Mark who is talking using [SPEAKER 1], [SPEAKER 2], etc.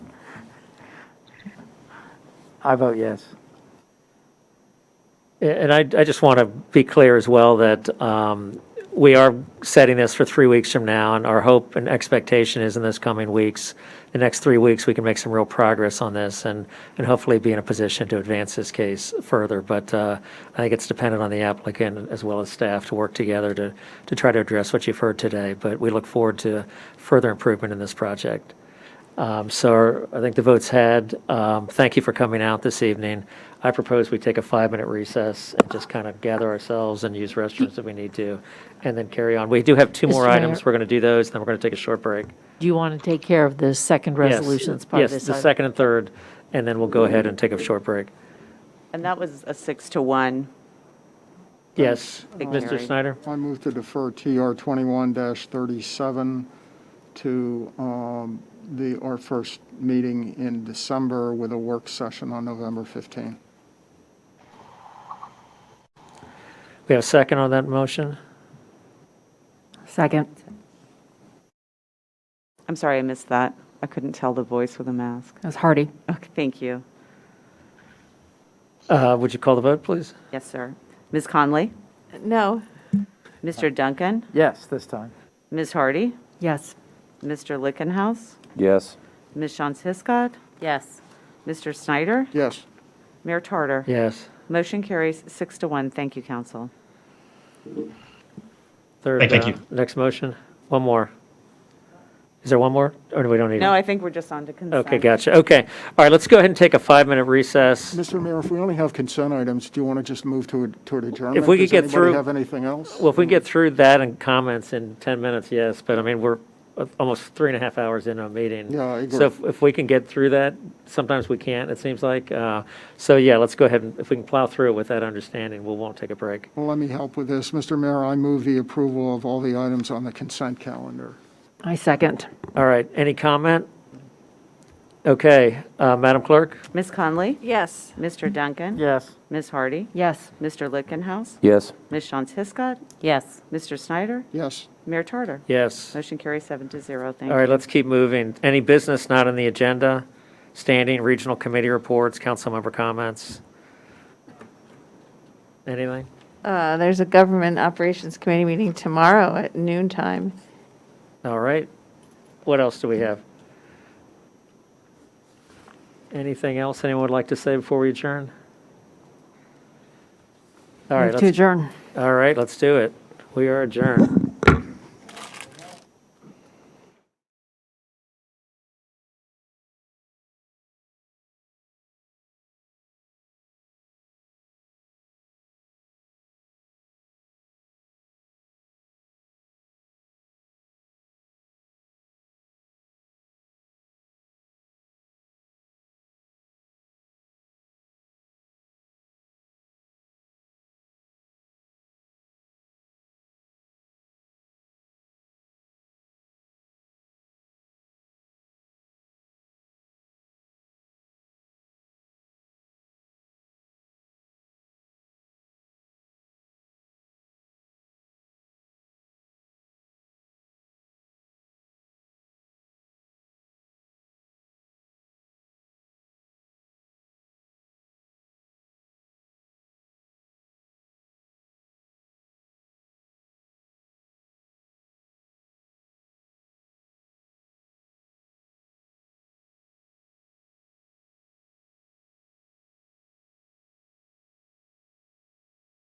[SPEAKER 1] I vote yes.
[SPEAKER 2] And I, I just want to be clear as well that um, we are setting this for three weeks from now, and our hope and expectation is in this coming weeks, the next three weeks, we can make some real progress on this and, and hopefully be in a position to advance this case further. But uh, I think it's dependent on the applicant as well as staff to work together to, to try to address what you've heard today. But we look forward to further improvement in this project. Um, So I think the vote's had. Um, Thank you for coming out this evening. I propose we take a five-minute recess and just kind of gather ourselves and use restrooms if we need to, and then carry on. We do have two
[SPEAKER 3] Mr.
[SPEAKER 2] more items.
[SPEAKER 3] Mayor.
[SPEAKER 2] We're going to do those, and then we're going to take a short break.
[SPEAKER 3] Do you want to take care of the second
[SPEAKER 2] Yes,
[SPEAKER 3] resolution that's part of this?
[SPEAKER 2] Yes, the
[SPEAKER 3] item?
[SPEAKER 2] second and third, and then we'll go ahead and take a short break.
[SPEAKER 4] And that was a six to one.
[SPEAKER 2] Yes,
[SPEAKER 4] Big
[SPEAKER 2] Mr.
[SPEAKER 4] carry.
[SPEAKER 2] Snyder?
[SPEAKER 5] I move to defer TR 21-37 to um, the, our first meeting in December with a work session on November 15.
[SPEAKER 2] We have a second on that motion?
[SPEAKER 3] Second.
[SPEAKER 4] I'm sorry, I missed that. I couldn't tell the voice with a mask.
[SPEAKER 3] That's Hardy.
[SPEAKER 4] Okay, thank you.
[SPEAKER 2] Uh, Would you call the vote, please?
[SPEAKER 4] Yes, sir. Ms. Conley?
[SPEAKER 3] No.
[SPEAKER 4] Mr. Duncan?
[SPEAKER 1] Yes, this time.
[SPEAKER 4] Ms. Hardy?
[SPEAKER 3] Yes.
[SPEAKER 4] Mr. Lickenhouse?
[SPEAKER 6] Yes.
[SPEAKER 4] Ms. Shantz Hiscott?
[SPEAKER 3] Yes.
[SPEAKER 4] Mr. Snyder?
[SPEAKER 5] Yes,
[SPEAKER 4] Mayor Tarter?
[SPEAKER 2] Yes.
[SPEAKER 4] Motion carries six to one. Thank you, council.
[SPEAKER 2] Third,
[SPEAKER 7] Thank
[SPEAKER 2] uh,
[SPEAKER 7] you.
[SPEAKER 2] next motion? One more. Is there one more? Or do we don't need it?
[SPEAKER 4] No, I think we're just on to consent.
[SPEAKER 2] Okay, gotcha. Okay. All right, let's go ahead and take a five-minute recess.
[SPEAKER 5] Mr. Mayor, if we only have consent items, do you want to just move to, a- toward adjournment?
[SPEAKER 2] we could get through-
[SPEAKER 5] Does anybody have anything else?
[SPEAKER 2] Well, if we can get through that and comments in 10 minutes, yes, but I mean, we're uh, almost three and a half hours into a meeting.
[SPEAKER 5] Yeah, I agree.
[SPEAKER 2] So if- if we can get through that, sometimes we can't, it seems like. Uh, So yeah, let's go ahead and, if we can plow through it with that understanding, we won't take a break.
[SPEAKER 5] Well, let me help with this. Mr. Mayor, I move the approval of all the items on the consent calendar.
[SPEAKER 3] I second.
[SPEAKER 2] All right, any comment? Okay, uh, Madam Clerk?
[SPEAKER 4] Ms. Conley?
[SPEAKER 3] Yes.
[SPEAKER 4] Mr. Duncan?
[SPEAKER 1] Yes.
[SPEAKER 4] Ms. Hardy?
[SPEAKER 3] Yes.
[SPEAKER 4] Mr. Lickenhouse?
[SPEAKER 6] Yes.
[SPEAKER 4] Ms. Shantz Hiscott?
[SPEAKER 3] Yes.
[SPEAKER 4] Mr. Snyder?
[SPEAKER 5] Yes,
[SPEAKER 4] Mayor Tarter?
[SPEAKER 2] Yes.
[SPEAKER 4] Motion carries seven to zero. Thank
[SPEAKER 2] All
[SPEAKER 4] you.
[SPEAKER 2] right, let's keep moving. Any business not on the agenda? Standing regional committee reports, council member comments? Anything?
[SPEAKER 8] Uh, There's a Government Operations Committee meeting tomorrow at noon time.
[SPEAKER 2] All right. What else do we have? Anything else anyone would like to say before we adjourn? All right,
[SPEAKER 3] Move to
[SPEAKER 2] let's,
[SPEAKER 3] adjourn.
[SPEAKER 2] all right, let's do it. We are adjourned.